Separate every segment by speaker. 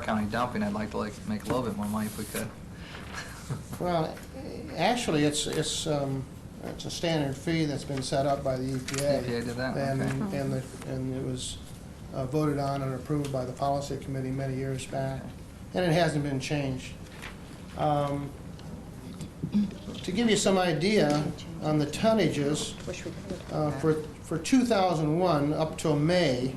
Speaker 1: county dumping, I'd like to like make a little bit more money if we could.
Speaker 2: Well, actually, it's, it's, um, it's a standard fee that's been set up by the EPA.
Speaker 1: EPA E did that,
Speaker 2: And,
Speaker 3: Hmm.
Speaker 1: okay.
Speaker 2: and the, and it was uh, voted on and approved by the policy committee many years back, and it hasn't been changed. Um, To give you some idea on the tonnages,
Speaker 3: Wish we could.
Speaker 2: uh, for, for 2001 up till May,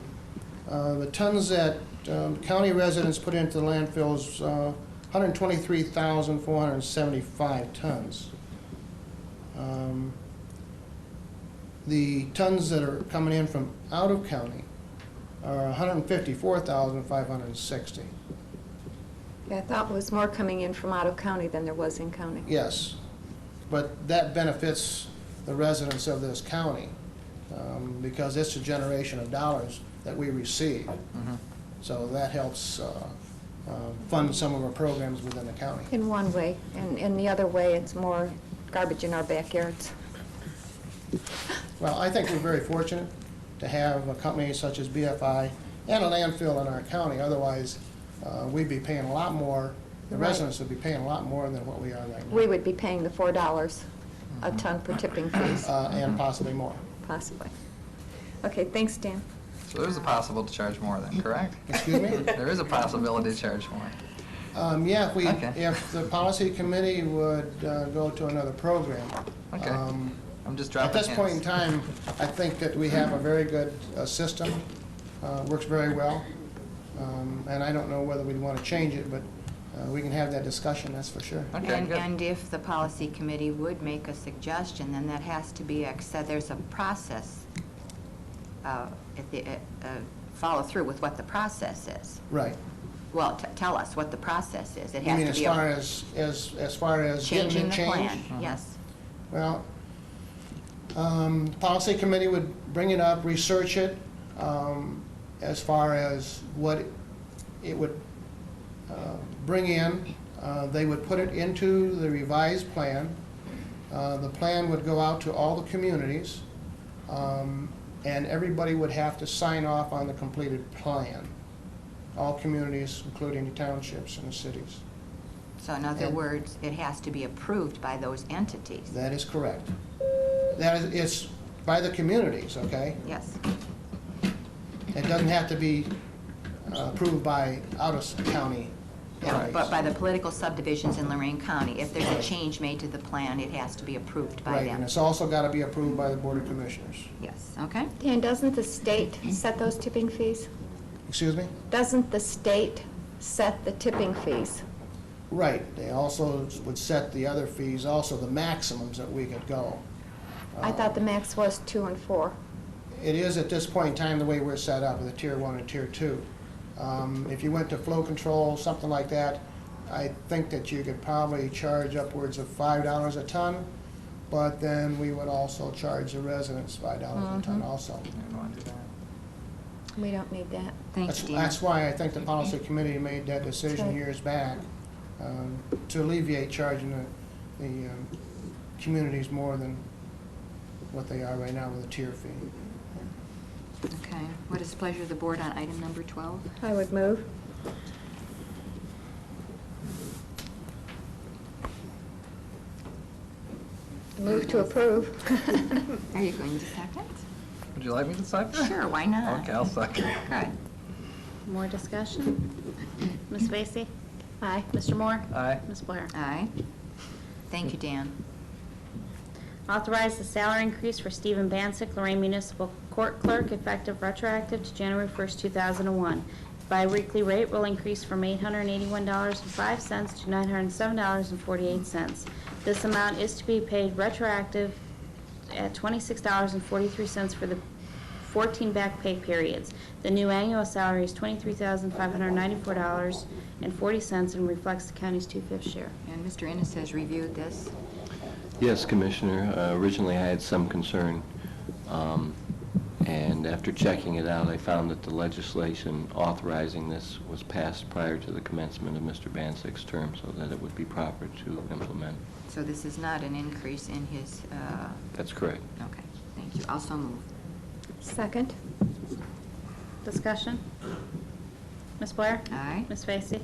Speaker 2: uh, the tons that um, county residents put into the landfill is uh, 123,475 tons. Um, The tons that are coming in from out of county are 154,560.
Speaker 3: Yeah, I thought it was more coming in from out of county than there was in county.
Speaker 2: Yes, but that benefits the residents of this county, um, because it's a generation of dollars that we receive.
Speaker 1: Mhm.
Speaker 2: So that helps uh, uh, fund some of our programs within the county.
Speaker 3: In one way, and in the other way, it's more garbage in our backyards.
Speaker 2: Well, I think we're very fortunate to have a company such as BFI and a landfill in our county. Otherwise, uh, we'd be paying a lot more, the
Speaker 3: Right.
Speaker 2: residents would be paying a lot more than what we are right now.
Speaker 3: We would be paying the four dollars a ton for tipping fees,
Speaker 2: uh, And possibly more.
Speaker 3: possibly. Okay, thanks, Dan.
Speaker 1: So there's a possible to charge more then, correct?
Speaker 2: Excuse me?
Speaker 1: There is a possibility to charge more.
Speaker 2: Um, yeah, if we,
Speaker 1: Okay.
Speaker 2: if the policy committee would uh, go to another program.
Speaker 1: Okay.
Speaker 2: Um,
Speaker 1: I'm just
Speaker 2: At
Speaker 1: dropping
Speaker 2: this point in
Speaker 1: hints.
Speaker 2: time, I think that we have a very good uh, system, uh, works very well. Um, And I don't know whether we'd want to change it, but uh, we can have that discussion, that's for sure.
Speaker 1: Okay,
Speaker 4: And,
Speaker 1: good.
Speaker 4: and if the policy committee would make a suggestion, then that has to be, ex- so there's a process, uh, if the, uh, uh, follow through with what the process is.
Speaker 2: Right.
Speaker 4: Well, t- tell us what the process is. It
Speaker 2: You mean
Speaker 4: has to
Speaker 2: as
Speaker 4: be
Speaker 2: far
Speaker 4: a
Speaker 2: as, as, as far as getting
Speaker 4: changing
Speaker 2: it
Speaker 4: the
Speaker 2: changed?
Speaker 4: plan,
Speaker 1: Uh-huh.
Speaker 4: yes.
Speaker 2: Well, um, the policy committee would bring it up, research it, um, as far as what it would, uh, bring in. Uh, they would put it into the revised plan. Uh, the plan would go out to all the communities, um, and everybody would have to sign off on the completed plan. All communities, including the townships and the cities.
Speaker 4: So in other
Speaker 2: And-
Speaker 4: words, it has to be approved by those entities,
Speaker 2: That is correct. That is, it's by the communities, okay?
Speaker 4: yes.
Speaker 2: It doesn't have to be uh, approved by out-of-county counties.
Speaker 4: But by the political subdivisions in Lorraine County, if there's a change made to the plan, it has to be approved by
Speaker 2: Right, and
Speaker 4: them.
Speaker 2: it's also got to be approved by the Board of Commissioners.
Speaker 4: Yes, okay?
Speaker 3: Dan, doesn't the state set those tipping fees?
Speaker 2: Excuse me?
Speaker 3: Doesn't the state set the tipping fees?
Speaker 2: Right, they also would set the other fees, also the maximums that we could go.
Speaker 3: I thought the max was two and four.
Speaker 2: It is at this point in time, the way we're set up, with a tier one and tier two. Um, If you went to flow control, something like that, I think that you could probably charge upwards of five dollars a ton, but then we would also charge the residents five dollars a ton also.
Speaker 1: I don't wanna do that.
Speaker 3: We don't need that.
Speaker 4: Thanks,
Speaker 2: That's,
Speaker 4: Dina.
Speaker 2: that's why I think the policy committee made that decision
Speaker 3: Sorry.
Speaker 2: years back, um, to alleviate charging the, the, um, communities more than what they are right now with a tier fee.
Speaker 4: Okay, what is the pleasure of the board on item number 12?
Speaker 3: I would move. Move to approve.
Speaker 4: Are you going to second?
Speaker 1: Would you like me to second?
Speaker 4: Sure, why not?
Speaker 1: Okay, I'll second.
Speaker 4: Good.
Speaker 5: More discussion? Ms. Vacy?
Speaker 3: Aye.
Speaker 5: Mr. Moore?
Speaker 1: Aye.
Speaker 5: Ms. Blair?
Speaker 4: Aye. Thank you, Dan.
Speaker 5: Authorize the salary increase for Stephen Bancek, Lorraine Municipal Court Clerk, effective retroactive to January 1st, 2001. Biweekly rate will increase from $881.05 to $907.48. This amount is to be paid retroactive at $26.43 for the 14 back pay periods. The new annual salary is $23,594.40 and reflects the county's two-fifth share.
Speaker 4: And Mr. Ennis has reviewed this.
Speaker 6: Yes, Commissioner. Uh, Originally, I had some concern, um, and after checking it out, I found that the legislation authorizing this was passed prior to the commencement of Mr. Bansick's term, so that it would be proper to implement.
Speaker 4: So this is not an increase in his, uh,
Speaker 6: That's correct.
Speaker 4: okay, thank you. Also move.
Speaker 3: Second.
Speaker 5: Discussion? Ms. Blair?
Speaker 4: Aye.
Speaker 5: Ms. Vacy?